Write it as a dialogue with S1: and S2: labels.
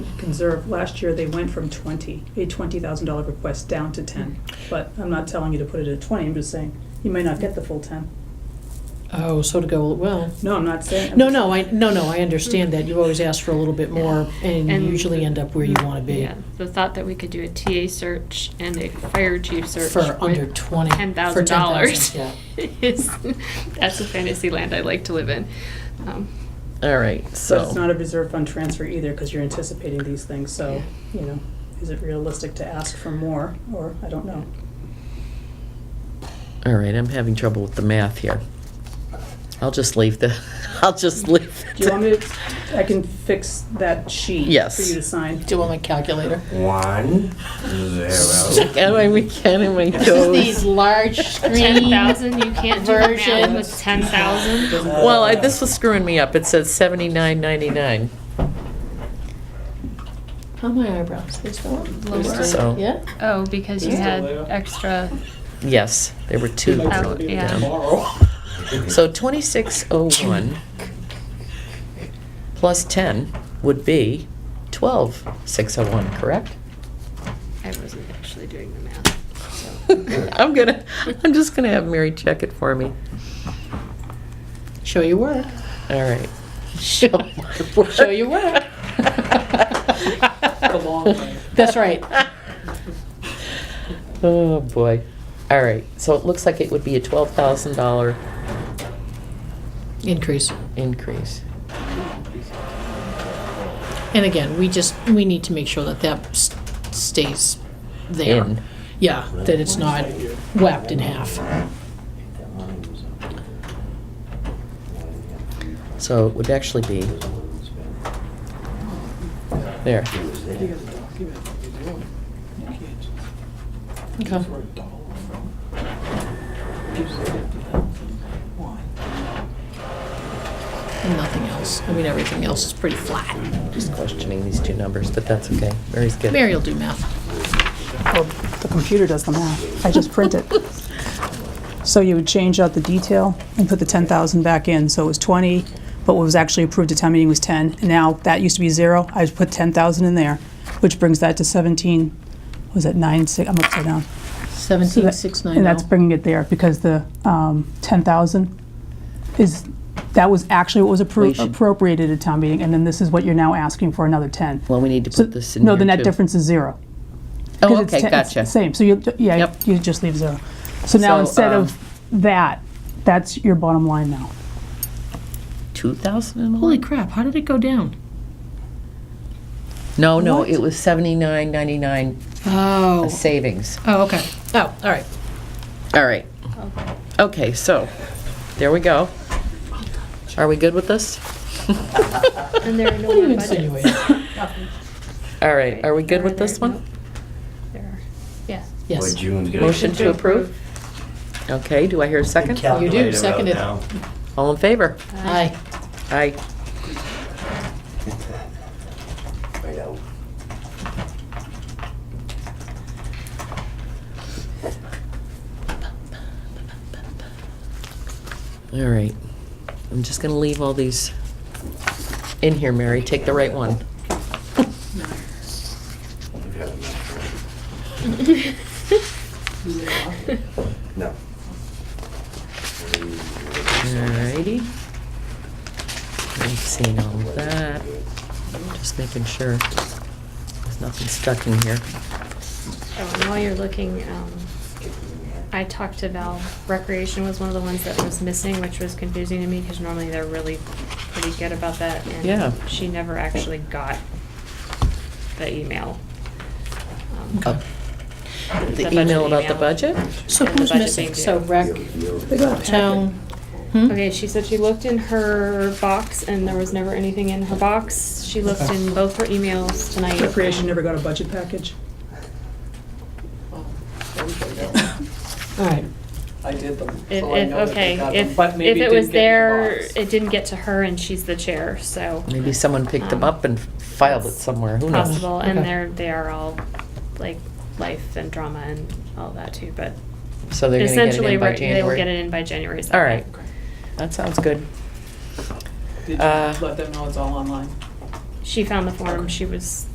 S1: conserve, last year they went from twenty, a twenty thousand dollar request down to ten. But I'm not telling you to put it at twenty, I'm just saying, you may not get the full ten.
S2: Oh, so to go, well,
S1: No, I'm not saying.
S2: no, no, I, no, no, I understand that. You always ask for a little bit more and you
S3: And-
S2: usually end up where you want to be.
S3: Yeah, the thought that we could do a TA search and a fire chief search.
S2: For under
S3: with
S2: 20 for
S3: $10,000.
S2: $10,000,
S3: Is, that's a fantasy land I like to live in. Um,
S4: All right,
S1: But it's
S4: so,
S1: not a reserve fund transfer either, because you're anticipating these things, so, you know, is it realistic to ask for more, or, I don't know.
S4: all right, I'm having trouble with the math here. I'll just leave the, I'll just leave.
S1: Do you want me to, I can fix that sheet.
S4: Yes.
S1: For you to sign.
S2: Do you want my calculator?
S5: One, zero.
S4: Check out my weekend and my
S2: This is
S4: toes.
S2: the large
S3: ten
S2: screen.
S3: thousand, you can't do the math
S2: version.
S3: with ten thousand.
S4: Well, I- this was screwing me up. It said seventy-nine ninety-nine.
S2: How my eyebrows? They still
S4: So-
S2: Yeah?
S3: Oh, because you had extra
S4: Yes, there were two.
S3: out, Oh, yeah.
S4: So twenty-six oh one plus ten would be twelve six oh one, correct?
S3: I wasn't actually doing the math.
S4: I'm gonna, I'm just gonna have Mary check it for me.
S2: Show your work.
S4: All right. Show my work.
S2: Show your work. That's right.
S4: Oh, boy. All right, so it looks like it would be a twelve thousand dollar
S2: Increase.
S4: increase.
S2: And again, we just, we need to make sure that that s- stays there.
S4: In.
S2: Yeah, that it's not whacked in half.
S4: So it would actually be, there,
S2: Okay. And nothing else. I mean, everything else is pretty flat.
S4: just questioning these two numbers, but that's okay. Mary's good.
S2: Mary will do math.
S1: The computer does the math, I just print it. So you would change out the detail and put the ten thousand back in, so it was twenty, but what was actually approved at town meeting was ten, and now that used to be zero, I just put ten thousand in there, which brings that to seventeen, was it nine, six, I'm upside down. So
S2: Seventeen
S1: that-
S2: six
S1: And
S2: nine
S1: that's
S2: oh.
S1: bringing it there, because the um, 10,000 is, that was actually what was
S4: We
S1: appro-
S4: should-
S1: appropriated at town meeting, and then this is what you're now asking for, another 10.
S4: Well, we need to
S1: So-
S4: put this in
S1: No,
S4: here,
S1: the net
S4: too.
S1: difference is zero.
S4: Oh,
S1: 'Cause it's
S4: okay,
S1: ten- it's
S4: gotcha.
S1: the Same, so you, yeah,
S4: Yep.
S1: you just leave zero. So now
S4: So,
S1: instead
S4: um,
S1: of that, that's your bottom line now.
S4: Two thousand and
S2: Holy
S4: one?
S2: crap, how did it go down?
S4: No, no,
S2: What?
S4: it was seventy-nine ninety-nine
S2: Oh,
S4: savings.
S2: oh, okay. Oh, all right.
S4: All right. Okay, so, there we go. Are we good with this?
S3: And there are no more budgets.
S4: All right, are we good with this
S3: Nope.
S4: one?
S3: There are, yeah.
S2: Yes.
S4: Motion to approve? Okay, do I hear a second?
S2: You do, second it.
S4: All in favor?
S2: Aye.
S4: Aye. All right. I'm just gonna leave all these in here, Mary. Take the right one.
S5: No.
S4: All righty. I've seen all of that. Just making sure there's nothing stuck in here.
S3: Oh, and while you're looking, um, I talked to Val. Recreation was one of the ones that was missing, which was confusing to me because normally they're really pretty good about that. And
S4: Yeah.
S3: She never actually got the email. um,
S4: Uh,
S3: The
S4: The
S3: budget
S4: email about the
S3: email.
S4: budget?
S2: So
S3: The
S2: who's
S3: budget
S2: missing?
S3: being
S2: So
S3: due.
S2: rec, town. hmm?
S3: Okay, she said she looked in her box and there was never anything in her box. She looked in both her emails tonight.
S1: never got a budget package?
S2: All right.
S6: I did them.
S3: If,
S6: so I
S3: if,
S6: know that they
S3: okay,
S6: got them,
S3: if,
S6: but
S3: if
S6: maybe
S3: it was
S6: didn't get in
S3: there,
S6: the box.
S3: it didn't get to her and she's the chair, so
S4: Maybe someone picked them up and filed it somewhere, who knows?
S3: possible. And
S2: Okay.
S3: they're, they are all like life and drama and all that too, but
S4: So they're gonna get it
S3: essentially,
S4: in by
S3: right, they will get it
S4: January?
S3: in by January.
S4: All right,
S3: second.
S4: that sounds good.
S6: Did
S4: uh,
S3: uh,
S6: you let them know it's all online?
S3: She found the form, she was